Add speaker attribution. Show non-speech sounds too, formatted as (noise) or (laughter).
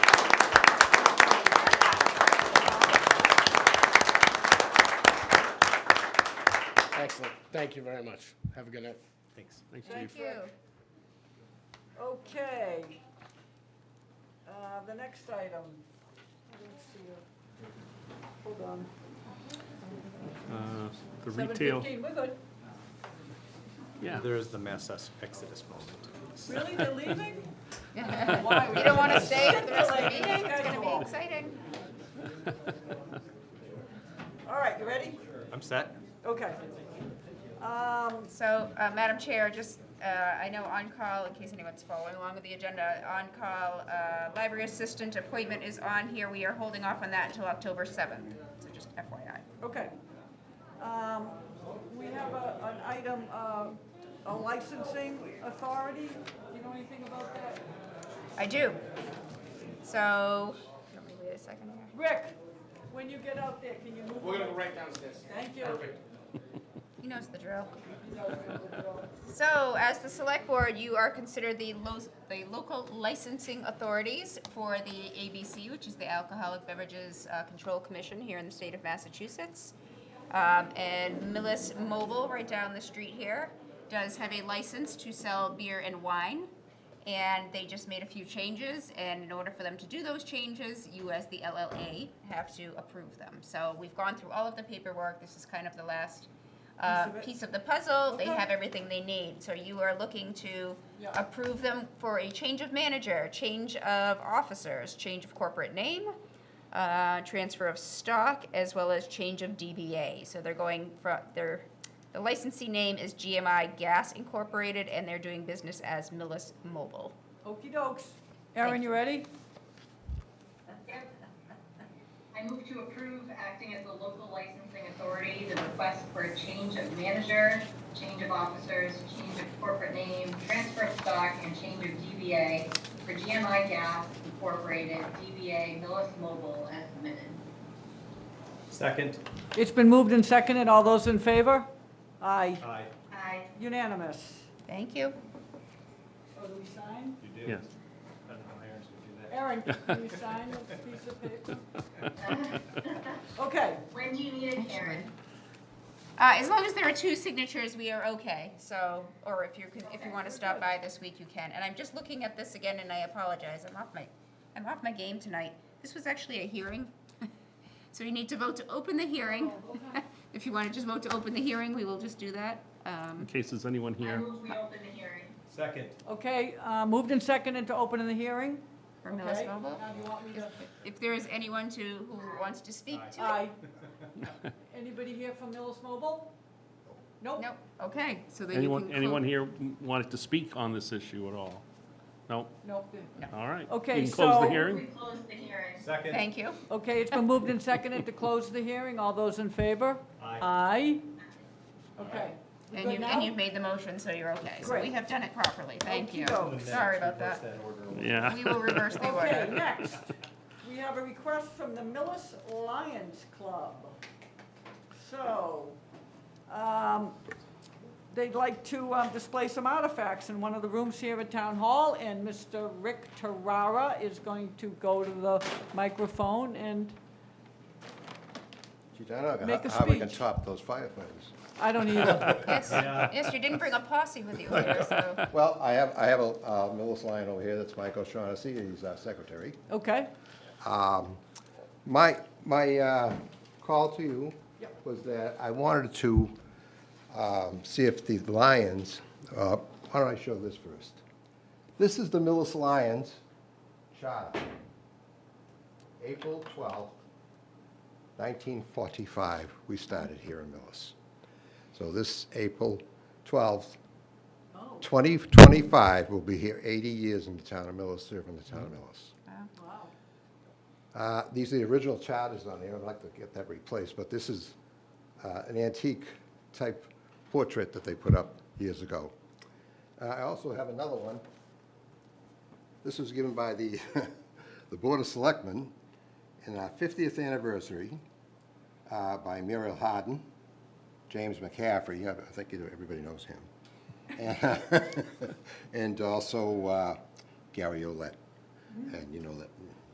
Speaker 1: Excellent. Thank you very much. Have a good night.
Speaker 2: Thanks.
Speaker 1: Thanks,
Speaker 3: Thank you.
Speaker 4: Okay. Uh, The next item. I don't see it. Hold on.
Speaker 2: Uh, The retail,
Speaker 4: 7:15,
Speaker 3: (laughs)
Speaker 4: we're good.
Speaker 2: yeah,
Speaker 5: There is the mass ex- exodus moment.
Speaker 4: Really, they're leaving? Why?
Speaker 3: You don't want to stay for the rest of the
Speaker 4: Like,
Speaker 3: meeting? It's going to
Speaker 4: schedule.
Speaker 3: be exciting.
Speaker 4: All right, you ready?
Speaker 5: I'm set.
Speaker 4: Okay. Um,
Speaker 3: So, uh, Madam Chair, just, uh, I know on-call, in case anyone's following along with the agenda, on-call uh, library assistant appointment is on here. We are holding off on that until October 7th, so just FYI.
Speaker 4: Okay. Um, We have a- an item, uh, a licensing authority. You know anything about that?
Speaker 3: I do. So, let me wait a second here.
Speaker 4: Rick, when you get out there, can you move?
Speaker 1: We're gonna
Speaker 4: on?
Speaker 1: go right downstairs.
Speaker 4: Thank you.
Speaker 1: Perfect.
Speaker 3: He knows the drill. (laughs) So, as the select board, you are considered the lo- the local licensing authorities for the ABC, which is the Alcoholic Beverages uh, Control Commission here in the state of Massachusetts. Um, and Millis Mobile, right down the street here, does have a license to sell beer and wine. And they just made a few changes, and in order for them to do those changes, you as the LLA have to approve them. So we've gone through all of the paperwork, this is kind of the last uh,
Speaker 4: Piece of it.
Speaker 3: piece of the puzzle, they
Speaker 4: Okay.
Speaker 3: have everything they need. So you are looking to
Speaker 4: Yeah.
Speaker 3: approve them for a change of manager, change of officers, change of corporate name, uh, transfer of stock, as well as change of DBA. So they're going from, their, the licensee name is GMI Gas Incorporated, and they're doing business as Millis Mobile.
Speaker 4: Okey dokes. Aaron, you ready?
Speaker 6: I move to approve acting as the local licensing authority, the request for a change of manager, change of officers, change of corporate name, transfer of stock, and change of DBA for GMI Gas Incorporated, DBA Millis Mobile as submitted.
Speaker 5: Second.
Speaker 4: It's been moved and seconded. All those in favor? Aye.
Speaker 5: Aye.
Speaker 6: Aye.
Speaker 4: Unanimous.
Speaker 3: Thank you.
Speaker 4: So do we sign?
Speaker 5: You do?
Speaker 2: yes.
Speaker 5: I don't know how Aaron's gonna do that.
Speaker 4: Aaron, can you sign this piece of paper?
Speaker 1: (laughs)
Speaker 4: Okay,
Speaker 6: When do you need it, Karen?
Speaker 3: Uh, as long as there are two signatures, we are okay, so, or if you can, if you wanna stop by this week, you can, and I'm just looking at this again, and I apologize, I'm off my, I'm off my game tonight. This was actually a hearing, (laughs) so you need to vote to open the hearing. (laughs) If you wanna just vote to open the hearing, we will just do that, um,
Speaker 2: In case there's anyone
Speaker 6: I
Speaker 2: here,
Speaker 6: move we open the hearing.
Speaker 5: Second.
Speaker 4: okay, uh, moved and seconded to open the hearing?
Speaker 3: for Millis Mobile.
Speaker 4: Now, do you want me to,
Speaker 3: If there is anyone to, who wants to speak to it.
Speaker 4: aye. Anybody here from Millis Mobile? Nope.
Speaker 3: Nope, okay, so then you can.
Speaker 2: anyone,
Speaker 3: close-
Speaker 2: anyone here wanted to speak on this issue at all? No?
Speaker 4: Nope.
Speaker 2: All right.
Speaker 4: Okay,
Speaker 2: You can close
Speaker 4: so-
Speaker 2: the
Speaker 6: We
Speaker 2: hearing?
Speaker 6: close the hearing.
Speaker 5: Second.
Speaker 3: Thank you.
Speaker 4: Okay, it's been moved and seconded to close the hearing. All those in favor? Aye. Okay. We
Speaker 3: And
Speaker 4: good
Speaker 3: you've,
Speaker 4: now?
Speaker 3: and you've made the motion, so you're okay. So we
Speaker 4: Great.
Speaker 3: have done it properly, thank you.
Speaker 4: Okey-doke.
Speaker 3: Sorry about
Speaker 5: Reverse
Speaker 3: that.
Speaker 5: order.
Speaker 2: Yeah.
Speaker 3: We will reverse the
Speaker 4: Okay,
Speaker 3: order.
Speaker 4: next, we have a request from the Millis Lions Club. So, um, they'd like to um, display some artifacts in one of the rooms here at Town Hall, and Mr. Rick Tarara is going to go to the microphone and,
Speaker 7: Gee, I don't know
Speaker 4: Make a
Speaker 7: how- how we can
Speaker 4: speech.
Speaker 7: top those firefighters.
Speaker 4: I don't (laughs) either.
Speaker 2: (laughs)
Speaker 3: Yes, yes, you didn't bring a posse with you here, so.
Speaker 7: Well, I have, I have a uh, Millis line over here, that's Mike O'Shaughnessy, he's our secretary.
Speaker 4: Okay,
Speaker 7: My, my uh, call to you
Speaker 4: Yep.
Speaker 7: was that I wanted to um, see if the Lions, uh, why don't I show this first? This is the Millis Lions charter, April 12th, 1945, we started here in Millis. So this April 12th, 2025, we'll be here 80 years in the town of Millis, serving the town of Millis.
Speaker 4: wow.
Speaker 7: Uh, These are the original charters on there. I'd like to get that replaced, but this is uh, an antique-type portrait that they put up years ago. Uh, I also have another one. This was given by the, (laughs) the Board of Selectmen in our 50th anniversary uh, by Muriel Harden, James McCaffrey, I I think you know- everybody knows (laughs) him, and also uh, Gary Olet. And you know that